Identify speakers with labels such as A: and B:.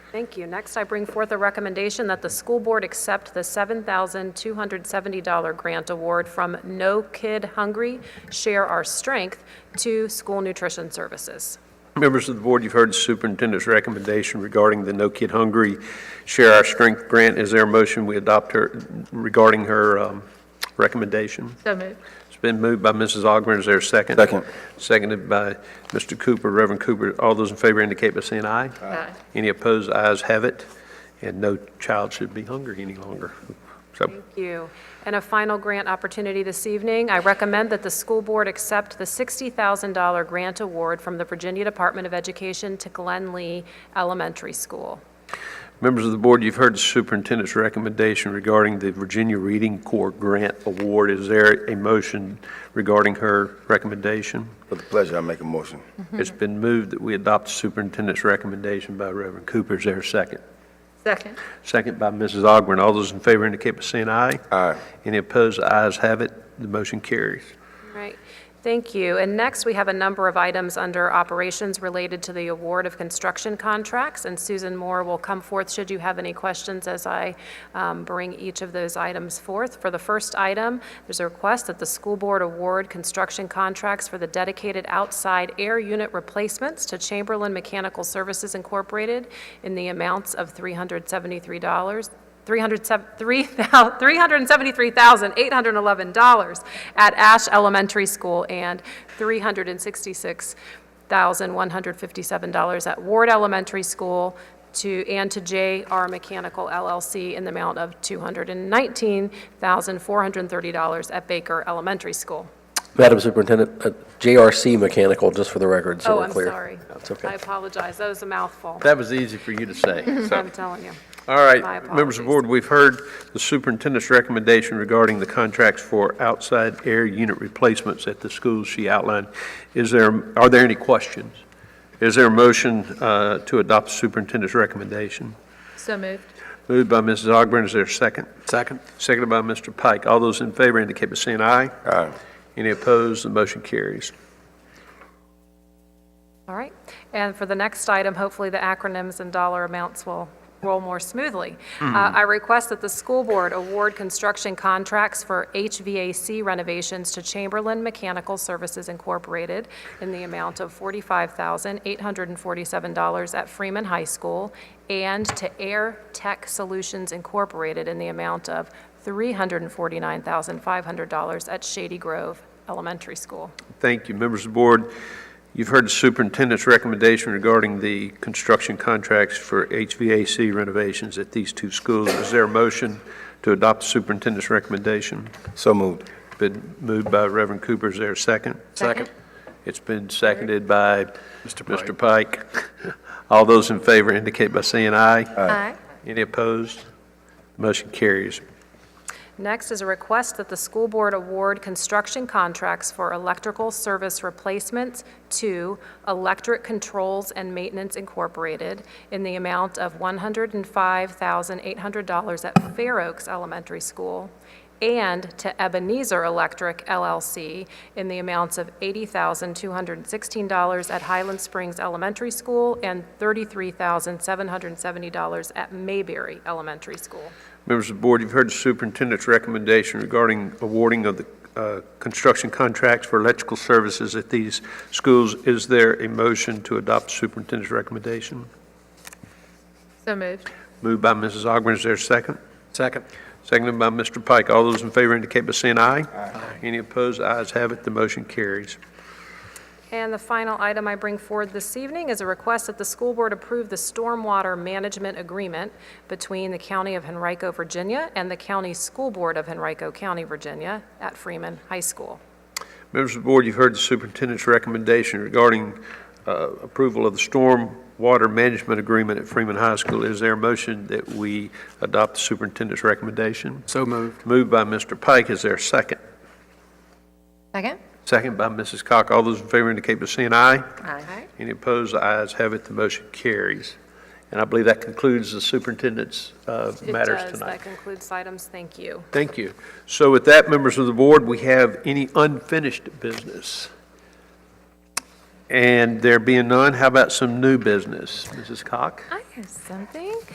A: Thank you. Next, I bring forth a recommendation that the school board accept the $7,270 grant award from No Kid Hungry, Share Our Strength to School Nutrition Services.
B: Members of the board, you've heard the superintendent's recommendation regarding the No Kid Hungry Share Our Strength grant. Is there a motion we adopt her, regarding her um, recommendation?
C: So moved.
B: It's been moved by Mrs. Augmiron. Is there a second?
D: Second.
B: Seconded by Mr. Cooper, Reverend Cooper. All those in favor indicate by saying aye.
C: Aye.
B: Any opposed, ayes have it. And no child should be hungry any longer. So
A: Thank you. And a final grant opportunity this evening. I recommend that the school board accept the $60,000 grant award from the Virginia Department of Education to Glen Lee Elementary School.
B: Members of the board, you've heard the superintendent's recommendation regarding the Virginia Reading Corps Grant Award. Is there a motion regarding her recommendation?
D: With pleasure, I make a motion.
B: It's been moved that we adopt the superintendent's recommendation by Reverend Cooper. Is there a second?
C: Second.
B: Second by Mrs. Augmiron. All those in favor indicate by saying aye.
D: Aye.
B: Any opposed, the ayes have it. The motion carries.
A: Right, thank you. And next, we have a number of items under operations related to the award of construction contracts, and Susan Moore will come forth should you have any questions as I um, bring each of those items forth. For the first item, there's a request that the school board award construction contracts for the dedicated outside air unit replacements to Chamberlain Mechanical Services Incorporated in the amounts of $373, $373,811 at Ash Elementary School and $366,157 at Ward Elementary School to, and to J.R. Mechanical LLC in the amount of $219,430 at Baker Elementary School.
E: Madam Superintendent, uh, JRC Mechanical, just for the record, so
A: Oh,
E: we're
A: I'm
E: clear.
A: sorry.
E: That's
A: I
E: okay.
A: apologize, that was a mouthful,
B: That was easy for you to say.
A: I'm telling you.
B: All right,
A: My
B: members of the
A: apologies.
B: board, we've heard the superintendent's recommendation regarding the contracts for outside air unit replacements at the schools she outlined. Is there, are there any questions? Is there a motion uh, to adopt the superintendent's recommendation?
C: So moved.
B: Moved by Mrs. Augmiron, is there a second? Second. Seconded by Mr. Pike. All those in favor indicate by saying aye.
D: Aye.
B: Any opposed, the motion carries.
A: All right. And for the next item, hopefully the acronyms and dollar amounts will roll more smoothly. Uh, I request that the school board award construction contracts for HVAC renovations to Chamberlain Mechanical Services Incorporated in the amount of $45,847 at Freeman High School and to Air Tech Solutions Incorporated in the amount of $349,500 at Shady Grove Elementary School.
B: Thank you. Members of the board, you've heard the superintendent's recommendation regarding the construction contracts for HVAC renovations at these two schools. Is there a motion to adopt the superintendent's recommendation?
D: So moved.
B: Been moved by Reverend Cooper. Is there a second?
C: Second.
B: It's been seconded by Mr. Pike. All those in favor indicate by saying aye.
C: Aye.
B: Any opposed? Motion carries.
A: Next is a request that the school board award construction contracts for electrical service replacements to Electric Controls and Maintenance Incorporated in the amount of $105,800 at Fair Oaks Elementary School and to Ebenezer Electric LLC in the amounts of $80,216 at Highland Springs Elementary School and $33,770 at Mayberry Elementary School.
B: Members of the board, you've heard the superintendent's recommendation regarding awarding of the uh, construction contracts for electrical services at these schools. Is there a motion to adopt the superintendent's recommendation?
C: So moved.
B: Moved by Mrs. Augmiron, is there a second?
E: Second.
B: Seconded by Mr. Pike. All those in favor indicate by saying aye. Aye. Any opposed, ayes have it, the motion carries.
A: And the final item I bring forward this evening is a request that the school board approve the stormwater management agreement between the County of Henrico, Virginia, and the County School Board of Henrico County, Virginia, at Freeman High School.
B: Members of the board, you've heard the superintendent's recommendation regarding uh, approval of the storm water management agreement at Freeman High School. Is there a motion that we adopt the superintendent's recommendation? So moved. Moved by Mr. Pike. Is there a second?
C: Second.
B: Second by Mrs. Cock. All those in favor indicate by saying aye.
C: Aye.
B: Any opposed? The ayes have it. The motion carries. And I believe that concludes the superintendent's uh, matters
A: It does.
B: tonight.
A: That concludes items. Thank you.
B: Thank you. So with that, members of the board, we have any unfinished business? And there being none, how about some new business? Mrs. Cock?
A: I have something.